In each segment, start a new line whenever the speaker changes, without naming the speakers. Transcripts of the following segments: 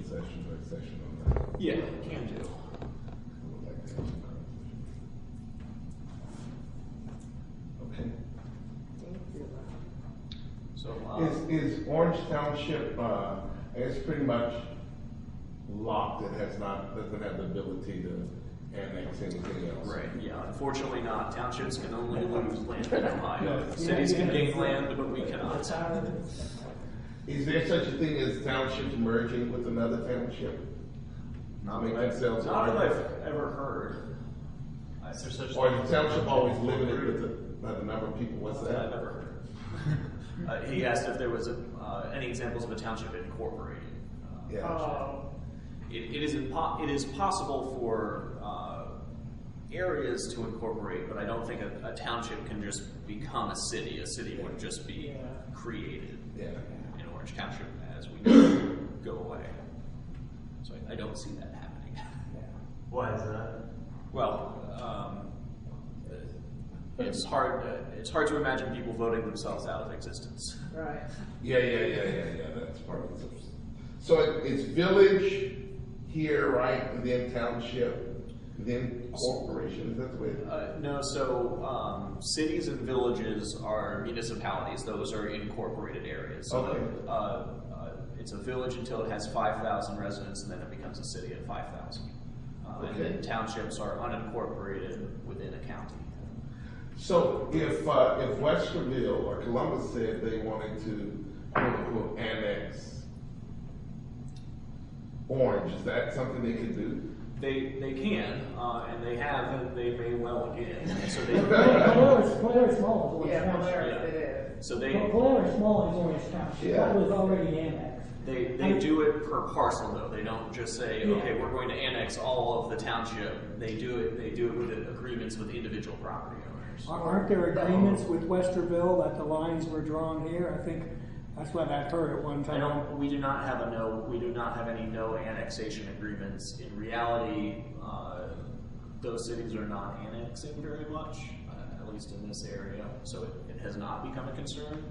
executive session on that.
Yeah, can do.
Okay.
So, uh,
Is, is Orange Township, uh, it's pretty much locked, it has not, doesn't have the ability to annex anything else.
right, yeah, unfortunately not. Townships can only lose land in Ohio. Cities can gain land, but we cannot.
Is there such a thing as townships merging with another township?
Not
Make
that I've-
themselves
Not that
larger.
I've ever heard. Is there such?
Or is the township always limited with the, by the number of people, what's
Not that I've
that?
ever heard. Uh, he asked if there was, uh, any examples of a township incorporated. Uh,
Yeah,
Oh,
It, it is impo- it is possible for, uh, areas to incorporate, but I don't think a, a township can just become a city. A city would just be
Yeah.
created
yeah.
in Orange Township as we go- go away. So I, I don't see that happening.
Why is that?
Well, um, it's hard, it's hard to imagine people voting themselves out of existence.
right.
Yeah, yeah, yeah, yeah, yeah, that's part of it. So it- it's village here, right, and then township, then corporation, is that the way? it-
Uh, no, so um, cities and villages are municipalities. Those are incorporated areas. So
Okay.
uh, uh, it's a village until it has 5,000 residents, and then it becomes a city at 5,000. Uh, And
Okay.
then townships are unincorporated within a county.
So if, uh, if Westerville or Columbus said they wanted to, quote unquote, annex Orange, is that something they could do?
They, they can, uh, and they have, and they may well again. So they,
Polaris, Polaris
Oh,
Mall is Orange
Yeah,
Township.
Polaris it is.
so
Pol-
they,
Polaris Mall is Orange Township,
Yeah.
that was already annexed.
They, they do it per parcel though. They don't just say, okay, we're going to annex all of the township. They do it, they do it with agreements with individual property owners.
Ar- Aren't there agreements with Westerville that the lines were drawn here? I think that's what I've heard at one
I
time.
don't, we do not have a no, we do not have any no annexation agreements. In reality, uh, those cities are not annexing very much, uh, at least in this area. So it, it has not become a concern.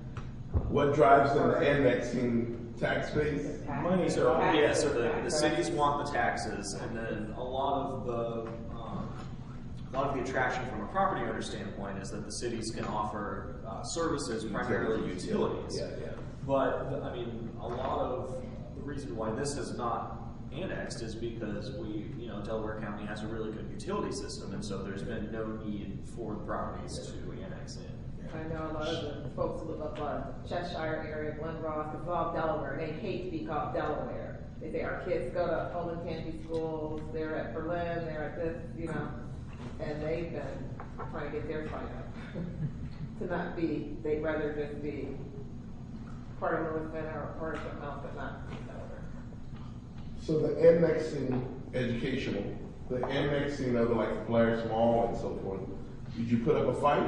What drives them to annexing tax base?
Money,
So,
Taxes,
yeah, so the, the cities want the taxes, and then a lot of the, um, a lot of the attraction from a property owner standpoint is that the cities can offer, uh, services, primarily utilities.
Yeah, yeah.
But, the- I mean, a lot of, the reason why this is not annexed is because we, you know, Delaware County has a really good utility system, and so there's been no need for the properties to annex in.
I know a lot of the folks who live up on Cheshire area, Glenross, it's all Delaware, they hate to be called Delaware. They say our kids go to Olin Candy schools, they're at Berlin, they're at this, you know, and they've been trying to get their fight up. To not be, they'd rather just be part of Lewiston or, or something else, but not Delaware.
So the annexing educational, the annexing of like the Polaris Mall and so forth, did you put up a fight?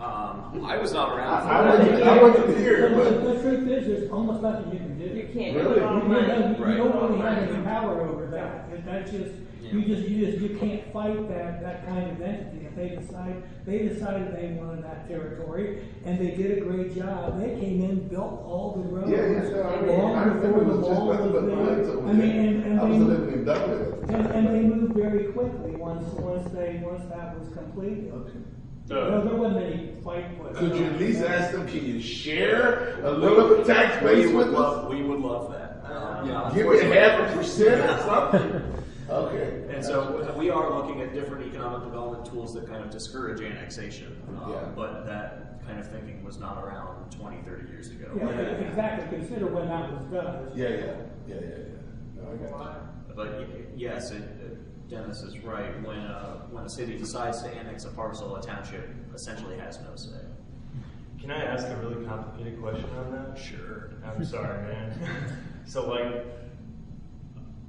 Um, I was not around. for
I- I
that.
wasn't- I wasn't here,
The-
but.
The the truth is, there's almost nothing you can do.
You can't.
Really?
You don't- You don't really have
Right.
any power over that, That- that's just, you
Yeah.
just, you just, you can't fight that, that kind of entity, if they decide, they decided they wanted that territory, and they did a great job, they came in, built all the roads.
Yeah, yeah, yeah. I mean,
long
I remember
before
it
the
was just
wall
nothing but
was
woods
there.
over
I mean, and,
there.
and
I was
they-
living in Dublin at the
And,
time.
and they moved very quickly once, once they, once that was completed. No, there wasn't any fight. with-
Could you at least ask them, can you share a little bit tax base
We would
with us?
love- We would love that. Um, yeah,
Give me
unfortunately-
half a percent or something? Okay.
And so we are looking at different economic development tools that kind of discourage annexation. um,
Yeah.
But that kind of thinking was not around 20, 30 years ago.
Yeah, exactly, consider when that was done.
Yeah, yeah, yeah, yeah, yeah. No, I got
But y- yes, it- it- Dennis is right. When a, when a city decides to annex a parcel, a township essentially has no say.
Can I ask a really complicated question on that? Sure. I'm sorry, man. so like,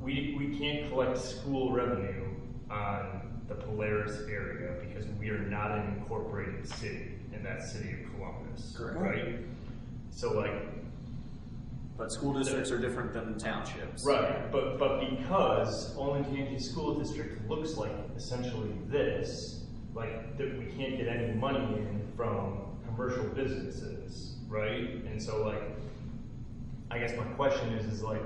we we can't collect school revenue on the Polaris area because we are not an incorporated city in that city of Columbus.
Correct.
Right. So like,
But school districts are different than townships.
Right, but, but because Olin Candy School District looks like essentially this, like, that we can't get any money in from commercial businesses, right? And so like, I guess my question is, is like,